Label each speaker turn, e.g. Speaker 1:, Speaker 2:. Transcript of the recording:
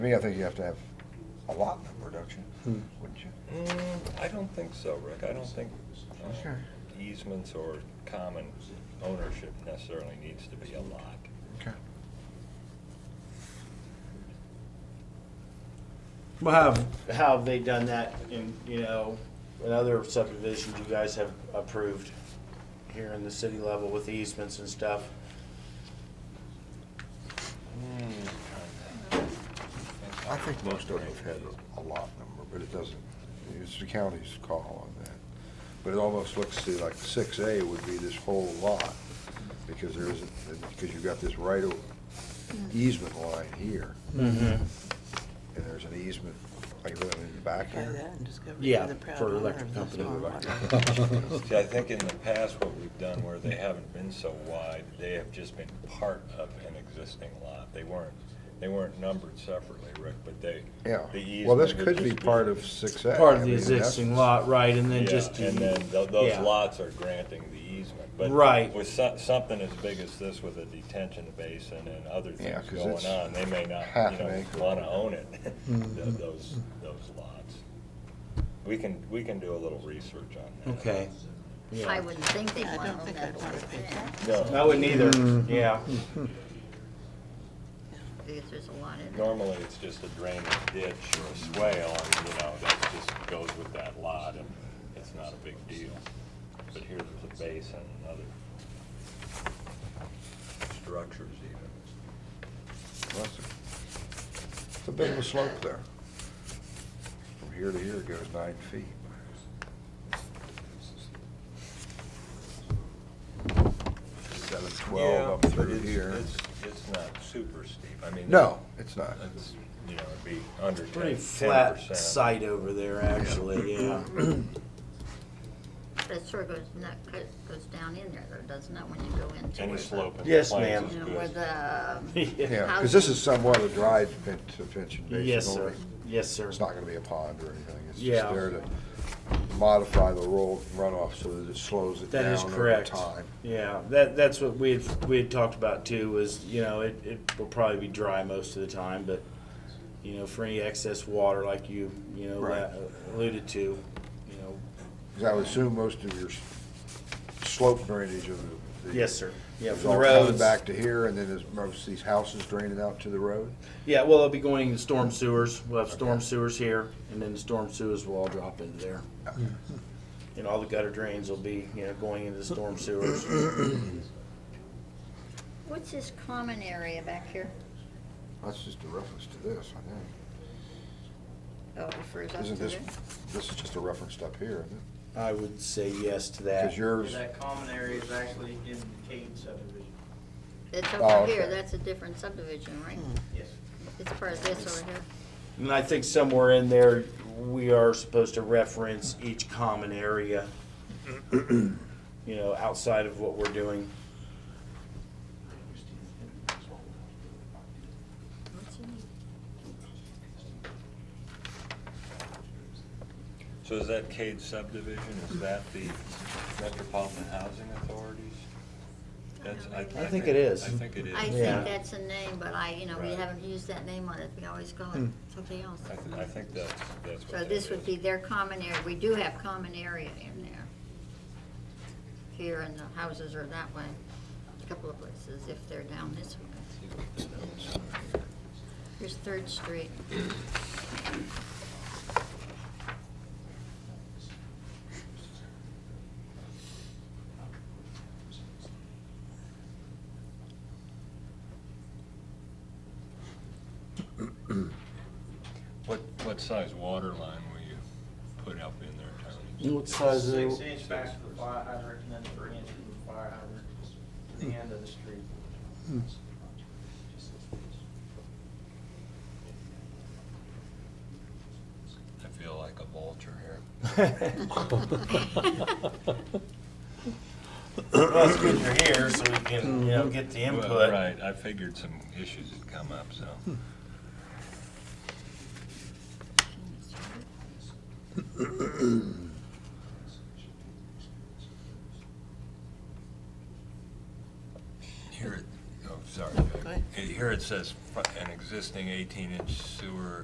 Speaker 1: To me, I think you have to have a lot number, don't
Speaker 2: Hmm.
Speaker 1: you? Wouldn't you?
Speaker 3: Mm, I don't think so, Rick. I don't think uh,
Speaker 1: Sure.
Speaker 3: easements or common ownership necessarily needs to be a lot.
Speaker 1: Okay.
Speaker 2: We'll have,
Speaker 4: How have they done that in, you know, in other subdivisions you guys have approved here in the city level with easements and stuff?
Speaker 1: I think most of them have had a lot number, but it doesn't, it's the county's call on that. But it almost looks to like six A would be this whole lot, because there isn't, because you've got this right of easement line here,
Speaker 4: Mm-hmm.
Speaker 1: and there's an easement like that in the back
Speaker 5: Try that
Speaker 1: here.
Speaker 5: and discover
Speaker 4: Yeah,
Speaker 5: the proud
Speaker 4: for
Speaker 5: owner
Speaker 4: electric
Speaker 5: of the
Speaker 4: company.
Speaker 5: stormwater.
Speaker 3: See, I think in the past, what we've done where they haven't been so wide, they have just been part of an existing lot. They weren't, they weren't numbered separately, Rick, but they,
Speaker 1: Yeah,
Speaker 3: the easement.
Speaker 1: well, this
Speaker 3: would
Speaker 1: could be
Speaker 3: just
Speaker 1: part of six A.
Speaker 2: part of the existing lot, right, and then
Speaker 3: Yeah,
Speaker 2: just.
Speaker 3: And then tho- those
Speaker 2: yeah.
Speaker 3: lots are granting the easement.
Speaker 2: Right.
Speaker 3: But with so- something as big as this with a detention basin and other
Speaker 1: Yeah,
Speaker 3: things
Speaker 1: 'cause it's
Speaker 3: going on, they may not,
Speaker 1: half an
Speaker 3: you know,
Speaker 1: acre.
Speaker 3: wanna own it, tho-
Speaker 2: Mm-hmm.
Speaker 3: those, those lots. We can, we can do a little research on that.
Speaker 2: Okay.
Speaker 6: I wouldn't think they'd
Speaker 5: Yeah, I
Speaker 6: want
Speaker 5: don't
Speaker 6: to own
Speaker 5: think
Speaker 6: that
Speaker 5: I'd
Speaker 6: whole
Speaker 5: want to
Speaker 6: thing.
Speaker 5: pick that.
Speaker 3: No,
Speaker 4: I wouldn't either,
Speaker 1: Mm-hmm.
Speaker 4: yeah.
Speaker 6: Because there's a lot in there.
Speaker 3: normally it's just a drainage ditch or a swale, and, you know, that just goes with that lot, and it's not a big deal. But here there's a basin and other structures even.
Speaker 1: Well, It's a- it's a bit of a slope there. From here to here it goes nine feet. Seven,
Speaker 3: Yeah,
Speaker 1: twelve up
Speaker 3: but
Speaker 1: through
Speaker 3: it's-
Speaker 1: here.
Speaker 3: It's, it's not super steep, I mean.
Speaker 1: No, it's not.
Speaker 3: It's, you know, it'd be under ten
Speaker 2: Pretty
Speaker 3: percent.
Speaker 2: flat site over there, actually, yeah.
Speaker 6: But it sort of goes, not, goes down in there, though, doesn't it, when you go into.
Speaker 3: Any
Speaker 6: where the-
Speaker 3: slope in the
Speaker 4: Yes,
Speaker 3: plains
Speaker 4: ma'am.
Speaker 3: is
Speaker 6: You know,
Speaker 3: good.
Speaker 6: where the, um,
Speaker 4: Yeah.
Speaker 1: Yeah, because this is somewhat a dry pen- detention basin.
Speaker 2: Yes, sir.
Speaker 1: only.
Speaker 4: Yes, sir.
Speaker 1: It's not gonna be a pond or anything. It's just
Speaker 2: Yeah.
Speaker 1: there to modify the roll runoff so that it slows it
Speaker 2: That
Speaker 1: down
Speaker 2: is
Speaker 1: over
Speaker 2: correct.
Speaker 1: time.
Speaker 2: Yeah, that, that's what we had, we had talked about too, was, you know, it, it will probably be dry most of the time, but, you know, for any excess water like you, you know,
Speaker 1: Right.
Speaker 2: la- alluded to, you know,
Speaker 1: 'Cause I would assume most of your s- slope drainage of the. the-
Speaker 2: yes, sir. Yeah,
Speaker 1: It's
Speaker 2: from the
Speaker 1: all coming
Speaker 2: roads.
Speaker 1: back to here, and then there's most of these houses draining out to the road.
Speaker 2: Yeah, well, it'll be going into storm sewers. We'll have storm sewers here, and then the storm sewers will all drop into there. And all the gutter drains will be, you know, going into the storm sewers.
Speaker 6: what's this common area back here?
Speaker 1: That's just a reference to this, I think.
Speaker 6: Oh, it refers up to
Speaker 1: Isn't
Speaker 6: there?
Speaker 1: this, this is just a reference up here, isn't it?
Speaker 2: I would say yes to
Speaker 1: Because
Speaker 2: that.
Speaker 1: yours,
Speaker 7: That common area is actually in the Cade subdivision.
Speaker 6: It's
Speaker 1: Oh,
Speaker 6: over here,
Speaker 1: okay.
Speaker 6: that's a different subdivision, right?
Speaker 5: Hmm.
Speaker 7: Yes.
Speaker 6: It's part of this over here.
Speaker 2: And I think somewhere in there, we are supposed to reference each common area, you know, outside of what we're doing.
Speaker 6: What's in here?
Speaker 3: So is that Cade subdivision, is that the Metropolitan Housing Authorities? That's, I.
Speaker 6: I
Speaker 2: think it is.
Speaker 3: I think it is.
Speaker 6: I
Speaker 2: Yeah.
Speaker 6: think that's a name, but I, you know, we
Speaker 3: Right.
Speaker 6: haven't used that name on it, we always call it something else.
Speaker 3: I thi- I think that's, that's what
Speaker 6: So
Speaker 3: that
Speaker 6: this would
Speaker 3: is.
Speaker 6: be their common area, we do have common area in there. Here and the houses are that way, a couple of places if they're down this way. Here's Third Street.
Speaker 3: What, what size water line will you put up in there, Tony?
Speaker 2: What size
Speaker 7: Six
Speaker 2: is
Speaker 7: inch back to the fire hydrant and then three inch from the fire hydrant to the end of the street.
Speaker 3: I feel like a vulture here.
Speaker 2: Well, it's good you're here, so we can,
Speaker 7: Mm-hmm.
Speaker 2: you know, get the
Speaker 3: Well,
Speaker 2: input. Hmm.
Speaker 3: Right, I figured some issues had come up, so. Here, it- oh, sorry.
Speaker 5: ahead.
Speaker 3: oh, Here here it says fr- an existing eighteen inch sewer